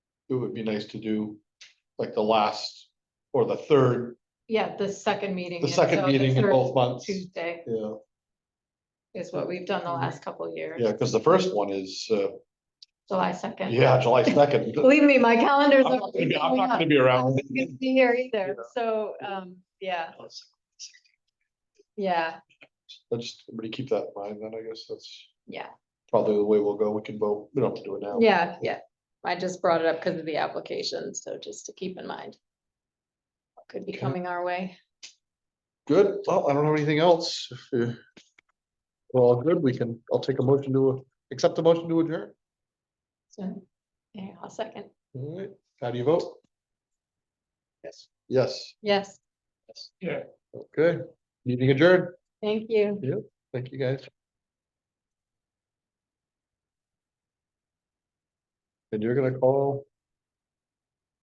it would be nice to do like the last or the third, Yeah, the second meeting. the is, second so meeting in third both months. Tuesday Yeah, is what we've done the last couple of years, Mm-hmm. yeah, because the first one is, uh, July second. yeah, July second. Believe me, my calendar's. I'm not gonna be- I'm not gonna be around. Be here either, Yeah. so, um, yeah, yeah, Let's just, everybody keep that in mind, then I guess that's yeah, probably the way we'll go. We can vote, we don't have to do it now. yeah, yeah. I just brought it up because of the application, so just to keep in mind. what Could be Okay. coming our way. Good, well, I don't have anything else. If you- We're all good, we can, I'll take a motion to, accept the motion to adjourn. So, yeah, I'll second. All right, how do you vote? Yes. Yes, Yes, Yeah. okay, meeting adjourned, thank you. thank you guys. And you're gonna call